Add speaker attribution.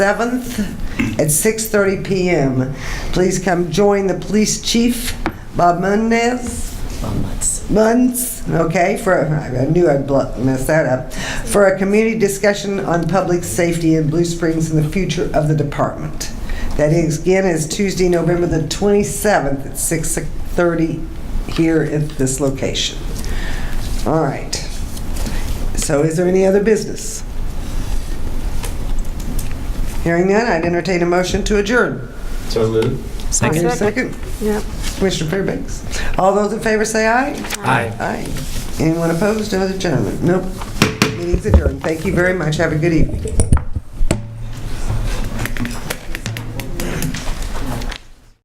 Speaker 1: 7th at 6:30 PM. Please come join the police chief, Bob Munez. Munz, okay, for, I knew I'd blo- mess that up, for a community discussion on public safety in Blue Springs and the future of the department. That is, again, is Tuesday, November the 27th at 6:30 here at this location. All right. So is there any other business? Hearing none, I'd entertain a motion to adjourn.
Speaker 2: So moved.
Speaker 1: Is there a Second.
Speaker 3: Yep.
Speaker 1: Commissioner Fairbanks. All those in favor say aye.
Speaker 2: Aye.
Speaker 1: Aye. Anyone opposed? No other gentlemen? Nope. Meeting's adjourned. Thank you very much. Have a good evening.